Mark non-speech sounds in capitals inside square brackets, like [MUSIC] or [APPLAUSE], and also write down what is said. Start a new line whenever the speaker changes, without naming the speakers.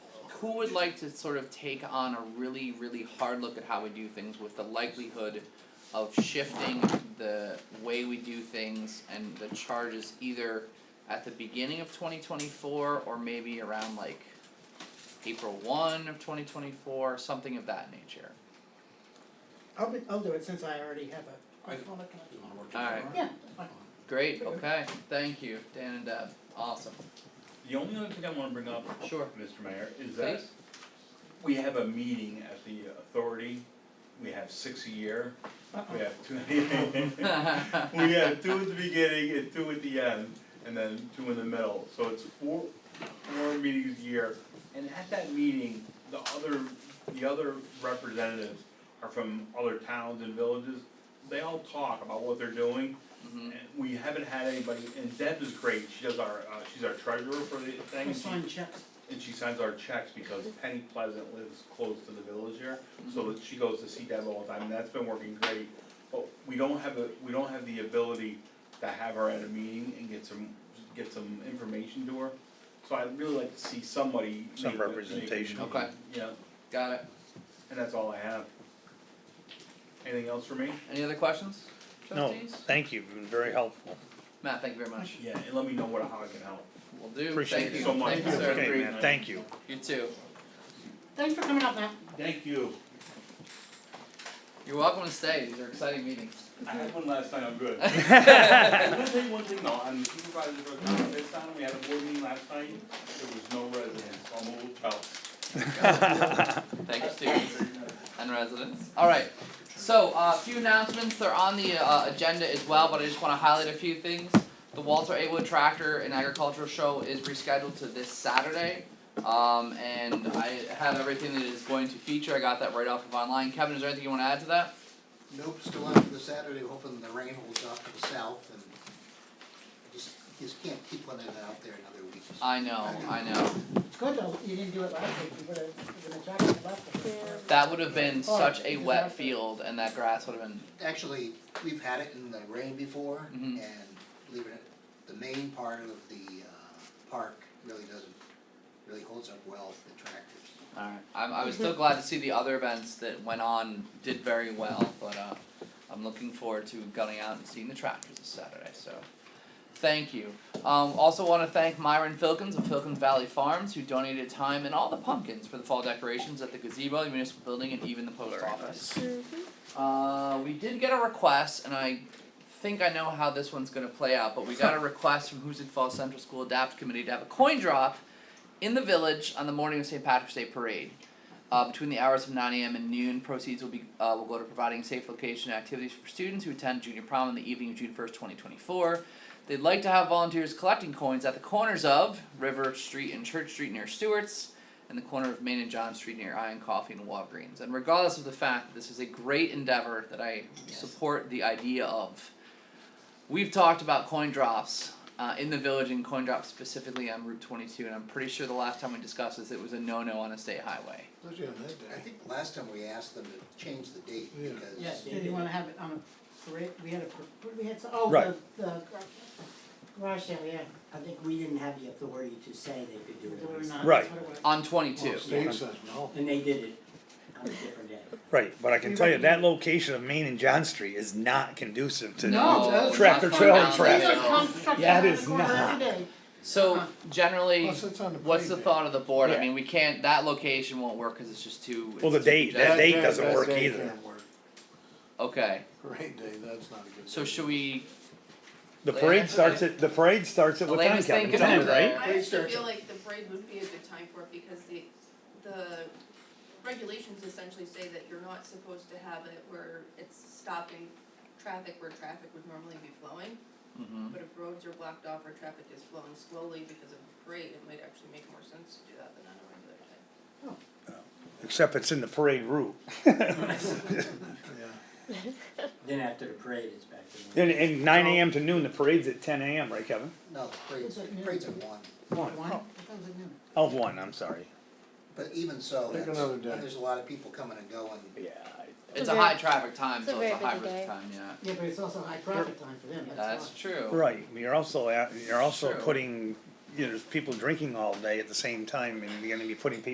who would like to sort of take on a really, really hard look at how we do things with the likelihood of shifting the way we do things and the charges either at the beginning of twenty twenty four or maybe around like April one of twenty twenty four, something of that nature.
I'll be, I'll do it since I already have a.
I-
I'll look at it.
You wanna work
All
tomorrow?
right.
Yeah, that's fine.
Great, okay, thank you, Dan and Deb, awesome,
The only other thing I wanna bring up,
sure, [LAUGHS]
Mr. Mayor, is that
please,
we have a meeting at the authority, we have six a year, we have two.
Mm-hmm.
We have two at the beginning and two at the end, and then two in the middle, so it's four, four meetings a year. And at that meeting, the other, the other representatives are from other towns and villages, they all talk about what they're doing.
Mhm.
And we haven't had anybody, and Deb is great, she does our, uh, she's our treasurer for the thing,
I'll
and she
sign checks.
and she signs our checks because Penny Pleasant lives close to the village here, so that she goes to see Deb all the time, and that's been working great. But we don't have the, we don't have the ability to have her at a meeting and get some, get some information to her. So I'd really like to see somebody.
Some
make the- make the
representation.
meeting.
Okay.
Yeah,
got it,
and that's all I have. Anything else for me?
any other questions,
No,
trustees?
thank you, you've been very helpful.
Matt, thank you very much,
Yeah, and let me know what, how I can help.
will do,
Appreciate
thank
it
you,
so much.
thank you, sir,
Have a
Okay,
great
man,
night.
thank you.
you too,
Thanks for coming up, Matt.
Thank you.
you're welcome to stay, these are exciting meetings. [LAUGHS]
I had one last time, I'm good. I'm gonna tell you one thing though, on supervisor's road, this time we had a board meeting last night, there was no residents, so I'm a little jealous.
Thank you, students and residents. Alright, so uh, a few announcements, they're on the uh, agenda as well, but I just wanna highlight a few things. The Walter A. Wood Tractor and Agricultural Show is rescheduled to this Saturday. Um, and I have everything that is going to feature, I got that right off of online. Kevin, is there anything you wanna add to that?
Nope, still out for the Saturday, hoping the rain holds off to the south and just, just can't keep letting it out there another week.
I know, I know.
It's good though, you didn't do it last week, you would have, you would have talked about it.
That would have been such a wet field and that grass would have been,
Actually, we've had it in the rain before and
Mhm.
believe it, or- the main part of the uh park really doesn't, really holds up well for the tractors.
alright. I I was still glad to see the other events that went on did very well, but uh I'm looking forward to going out and seeing the tractors this Saturday, so thank you. Um also wanna thank Myron Filkins of Filkins Valley Farms who donated time and all the pumpkins for the fall decorations at the gazebo, the municipal building and even the post office. Uh we did get a request and I think I know how this one's gonna play out, but we got a request from Hoosick Falls Central School Adapt Committee to have a coin drop in the village on the morning of St. Patrick's Day parade. Uh, between the hours of 9 a.m. and noon, proceeds will be uh, will go to providing safe location and activities for students who attend junior prom on the evening of June 1st, 2024. They'd like to have volunteers collecting coins at the corners of River Street and Church Street near Stewart's, and the corner of Main and John Street near Iron Coffee and Walgreens. And regardless of the fact, this is a great endeavor that I support the idea of. We've talked about coin drops uh, in the village and coin drops specifically on Route 22, and I'm pretty sure the last time we discussed this, it was a no-no on a state highway.
I think last time we asked them to change the date
Yeah.
because.
Yes, did you wanna have it on a parade, we had a, par- we had, some- oh,
Right.
the, the garage sale, yeah,
I think we didn't have the authority to say they could do
we
it.
were
on
not,
Right.
that's what it was.
On
Oh,
22.
Dave says no.
Sunday. And they did it on a different day.
Right, but I can tell you, that location of Main and John Street is not conducive to.
No, that's-
Tractor
not
trailer
down
traffic.
there.
Jesus comes trucking
Yeah,
around
it
the
is
corner every
not.
day.
So generally,
Plus Oh, it's on the
what's the
playground.
thought of the board? I
Yeah.
mean, we can't. That location won't work because it's just too.
Well, the
it's too
date,
congested.
that date doesn't
that
work
day
either.
can't work.
Okay,
Parade day, that's not a good.
so
day.
should we?
The parade starts at, the parade starts at what time,
Elena's
Kevin?
thinking
Ten,
over
right?
there.
I actually
Research it.
feel like the parade would be a good time for it because the, the regulations essentially say that you're not supposed to have it where it's stopping traffic where traffic would normally be flowing.
Mm-hmm.
But if roads are blocked off or traffic is flowing slowly because of the parade, it might actually make more sense to do that than on a regular day.
Except it's in the parade route.
Yeah.
[LAUGHS] Then after the parade, it's back to
And,
normal.
and nine AM to noon, the parade's at ten AM, right, Kevin?
No, the parade's,
Is it noon?
parade's at one,
One,
One. Oh,
I thought it was at noon.
Oh, one, I'm sorry.
but even so,
Pick
that's,
another day.
there's a lot of people coming and going.
Yeah.
It's
It's
a
a
high
very-
traffic time,
it's a
so it's a
very
high
busy
risk
day.
time. Yeah,
Yeah, but it's also high profit time for them, that's
that's
why.
true.
Right, you're also at, you're also
True.
putting, you know, there's people drinking all day at the same time and you're gonna be putting people